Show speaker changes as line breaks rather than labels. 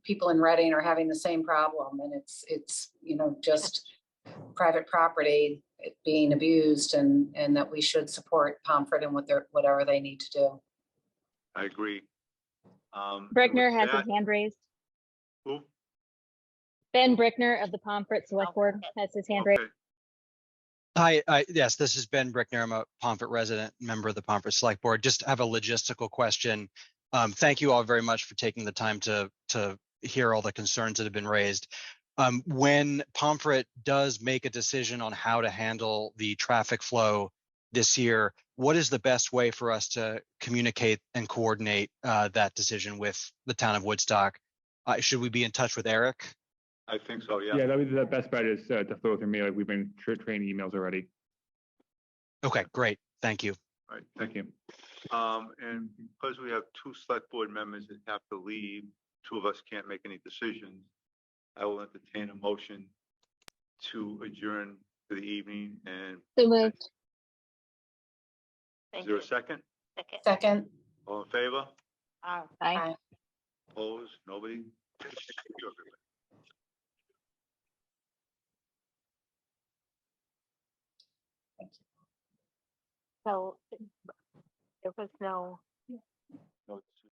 people in Reading are having the same problem and it's, it's, you know, just private property being abused and, and that we should support Pomfret and what they're, whatever they need to do.
I agree. Um, and
Brickner
with
has his
that-
hand raised.
Who?
Ben Brickner of the Pomfret Select Board has his hand raised.
Okay.
Hi, I, yes, this is Ben Brickner. I'm a Pomfret resident, member of the Pomfret Select Board. Just have a logistical question. Um, thank you all very much for taking the time to, to hear all the concerns that have been raised. Um, when Pomfret does make a decision on how to handle the traffic flow this year, what is the best way for us to communicate and coordinate, uh, that decision with the town of Woodstock? Uh, should we be in touch with Eric?
I think so, yeah.
Yeah, that would be the best bet is uh, to flow through me. Like we've been tra- training emails already.
Okay, great. Thank you.
Right, thank
Thank you.
you. Um, and because we have two select board members that have to leave, two of us can't make any decisions. I will entertain a motion to adjourn for the evening and
So moved.
is
Thank
there
you.
a second?
Second.
Second,
All in favor?
Aye.
Aye.
Opposed? Nobody? Thank you, everybody.
So there was no.
No, it's-